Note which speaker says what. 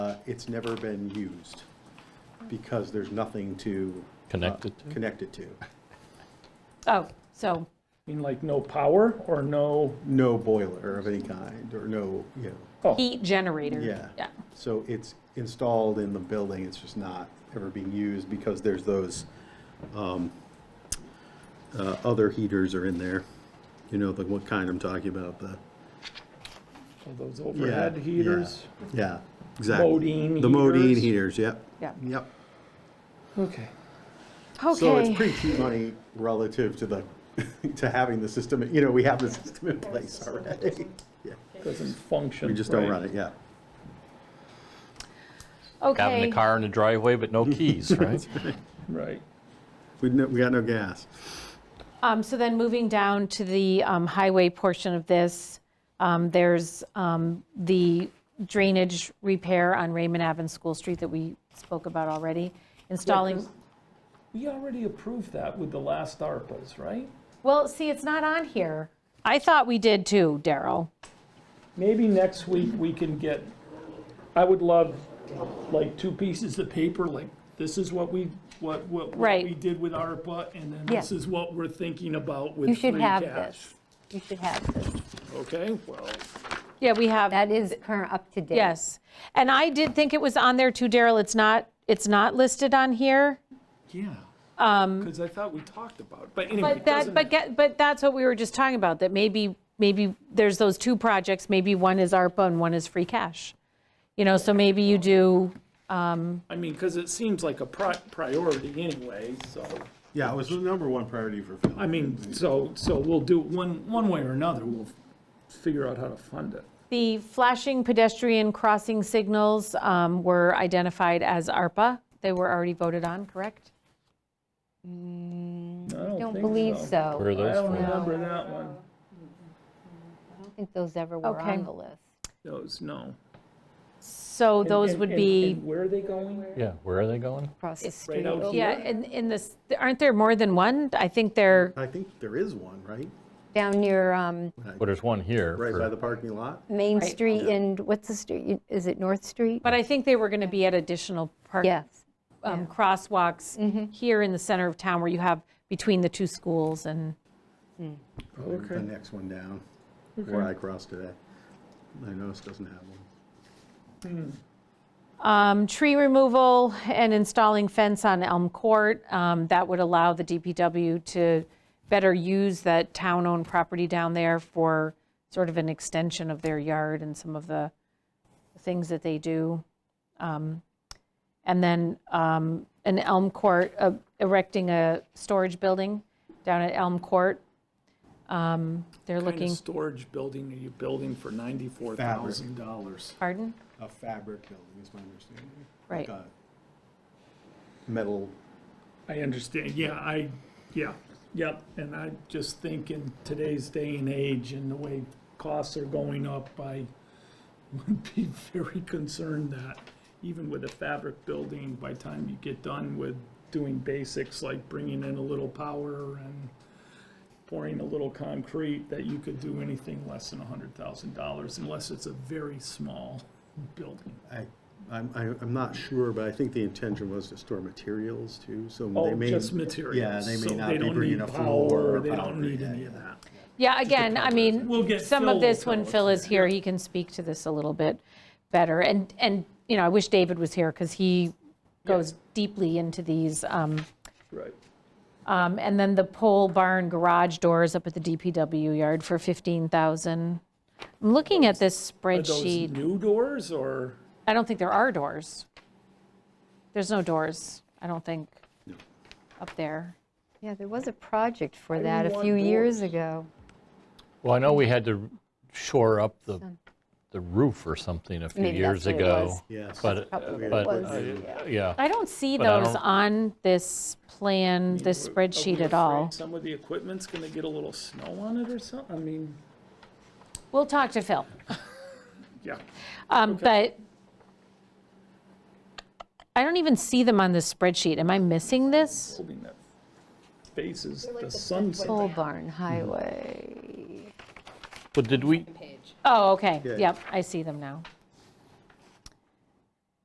Speaker 1: uh, it's never been used because there's nothing to. uh,
Speaker 2: Connect it to?
Speaker 1: Connect it to.
Speaker 3: Oh, so,
Speaker 4: mean, like no power or no,
Speaker 1: No boiler of any kind or no, you know,
Speaker 4: oh,
Speaker 3: heat generator.
Speaker 1: yeah. So it's installed in the building, it's just not ever being used because there's those um, uh, other heaters are in there. You know, like what kind I'm talking about, the.
Speaker 4: so oh, those
Speaker 1: yeah,
Speaker 4: overhead
Speaker 1: yeah,
Speaker 4: heaters.
Speaker 1: Yeah, exactly.
Speaker 4: Modine
Speaker 1: The Modine
Speaker 4: heaters.
Speaker 1: heaters, yep.
Speaker 3: Yeah.
Speaker 1: Yep.
Speaker 4: Okay.
Speaker 1: So it's
Speaker 3: Okay,
Speaker 1: pretty cheap money relative to the, to having the system, you know, we have the system in place already. Yeah,
Speaker 4: Doesn't function.
Speaker 1: We just don't
Speaker 4: right?
Speaker 1: run it, yeah.
Speaker 2: Having
Speaker 3: okay.
Speaker 2: the car in the driveway but no keys, right?
Speaker 4: Right.
Speaker 1: We, no- we got no gas.
Speaker 3: Um, So then moving down to the um, highway portion of this, um, there's um, the drainage repair on Raymond Ave and School Street that we spoke about already, installing,
Speaker 4: We already approved that with the last ARPA's, right?
Speaker 3: well, see, it's not on here. I thought we did too, Daryl.
Speaker 4: Maybe next week we can get, I would love like two pieces of paper, like this is what we, what, what what
Speaker 3: Right.
Speaker 4: we did with ARPA and then this
Speaker 5: Yeah.
Speaker 4: is what we're thinking about with
Speaker 5: You
Speaker 4: free
Speaker 5: should have
Speaker 4: cash.
Speaker 5: this. You should have this.
Speaker 4: Okay, well,
Speaker 3: Yeah, we have.
Speaker 5: That is current, up to date.
Speaker 3: Yes, and I did think it was on there too, Daryl, it's not, it's not listed on here.
Speaker 4: yeah. Um. Cause I thought we talked about, it. but anyway,
Speaker 3: But
Speaker 4: it doesn't
Speaker 3: that, but
Speaker 4: matter.
Speaker 3: get, but that's what we were just talking about, that maybe, maybe there's those two projects, maybe one is ARPA and one is free cash. You know, so maybe you do,
Speaker 4: I mean, cause it seems like a pri- priority anyway, so.
Speaker 1: Yeah, it was the number one priority for
Speaker 4: I
Speaker 1: Phil.
Speaker 4: mean, so, so we'll do, one, one way or another, we'll figure out how to fund it.
Speaker 3: the flashing pedestrian crossing signals um, were identified as ARPA. They were already voted on, correct?
Speaker 4: I
Speaker 5: Don't
Speaker 4: think
Speaker 5: believe so.
Speaker 2: Where are
Speaker 4: I
Speaker 2: those
Speaker 4: don't
Speaker 2: from?
Speaker 4: remember that one.
Speaker 5: I don't think those ever were
Speaker 3: Okay.
Speaker 5: on the list.
Speaker 4: Those, no.
Speaker 3: So those
Speaker 4: And-
Speaker 3: would
Speaker 4: and-
Speaker 3: be,
Speaker 4: and where are they going?
Speaker 2: Yeah, where are they going?
Speaker 5: Across the
Speaker 4: Right
Speaker 5: street.
Speaker 4: out
Speaker 5: over-
Speaker 4: here.
Speaker 3: yeah, in, in this, aren't there more than one? I think there,
Speaker 1: I think there is one, right?
Speaker 5: Down near um,
Speaker 2: Well, there's one here.
Speaker 1: Right
Speaker 2: for-
Speaker 1: by the parking lot?
Speaker 5: Main
Speaker 3: Right.
Speaker 5: Street and, what's the street? Is it North Street?
Speaker 3: but I think they were going to be at additional park
Speaker 5: Yes.
Speaker 3: um,
Speaker 4: Mm-hmm.
Speaker 3: crosswalks here in the center of town where you have between the two schools and, Oh,
Speaker 1: The next one down, where I crossed today. I noticed doesn't have one.
Speaker 3: um, tree removal and installing fence on Elm Court. Um, That would allow the DPW to better use that town-owned property down there for sort of an extension of their yard and some of the things that they do. Um, And then um, an Elm Court, uh, erecting a storage building down at Elm Court. Um, They're
Speaker 4: What kind
Speaker 3: looking.
Speaker 4: of storage building are you building for ninety-four thousand dollars?
Speaker 3: Pardon?
Speaker 1: A fabric building is my understanding.
Speaker 3: Right.
Speaker 1: Like a Metal,
Speaker 4: I understand, yeah, I, yeah, yep, and I just think in today's day and age and the way costs are going up, I would be very concerned that even with a fabric building, by the time you get done with doing basics like bringing in a little power and pouring a little concrete, that you could do anything less than a hundred thousand dollars unless it's a very small building.
Speaker 1: I, I'm, I- I'm not sure, but I think the intention was to store materials too, so they
Speaker 4: Oh,
Speaker 1: may.
Speaker 4: just materials.
Speaker 1: Yeah, they
Speaker 4: so
Speaker 1: may not be
Speaker 4: don't
Speaker 1: bringing
Speaker 4: need
Speaker 1: a floor.
Speaker 4: power,
Speaker 1: or
Speaker 4: They don't
Speaker 1: concrete,
Speaker 4: need
Speaker 1: yeah,
Speaker 4: any of
Speaker 1: yeah.
Speaker 4: that.
Speaker 3: Yeah, again, I
Speaker 4: We'll
Speaker 3: mean,
Speaker 4: get
Speaker 3: some
Speaker 4: Phil
Speaker 3: of
Speaker 4: will
Speaker 3: this
Speaker 4: tell
Speaker 3: when
Speaker 4: us,
Speaker 3: Phil is
Speaker 4: yeah.
Speaker 3: here, he can speak to this a little bit better. And, and, you know, I wish David was here because he goes deeply into these. um,
Speaker 4: Right.
Speaker 3: um, And then the pole barn garage doors up at the DPW yard for 15,000. I'm looking at this
Speaker 4: Are those
Speaker 3: spreadsheet.
Speaker 4: new doors or?
Speaker 3: I don't think there are doors. There's no doors, I don't think, up there.
Speaker 5: Yeah, there was a project for
Speaker 4: do
Speaker 5: that
Speaker 4: you
Speaker 5: a
Speaker 4: want
Speaker 5: few years
Speaker 4: doors?
Speaker 5: ago.
Speaker 2: Well, I know we had to shore up the, the roof or something a few
Speaker 5: Maybe
Speaker 2: years
Speaker 5: that's what it
Speaker 2: ago.
Speaker 5: was.
Speaker 1: Yes.
Speaker 2: But,
Speaker 5: Probably
Speaker 2: but,
Speaker 5: was,
Speaker 2: uh,
Speaker 5: yeah.
Speaker 2: yeah,
Speaker 3: I don't see
Speaker 2: But I
Speaker 3: those
Speaker 2: don't-
Speaker 3: on this plan, this
Speaker 4: Are we
Speaker 3: spreadsheet at
Speaker 4: afraid
Speaker 3: all.
Speaker 4: Some of the equipment's gonna get a little snow on it or something, I mean,
Speaker 3: We'll talk to Phil,
Speaker 4: yeah.
Speaker 3: Um, but I don't even see them on this spreadsheet. Am I missing this?
Speaker 4: Holding that faces, the sunset.
Speaker 5: Pole barn highway.
Speaker 2: but did we,
Speaker 3: Oh, okay,
Speaker 1: Yeah.
Speaker 3: yep, I see them now.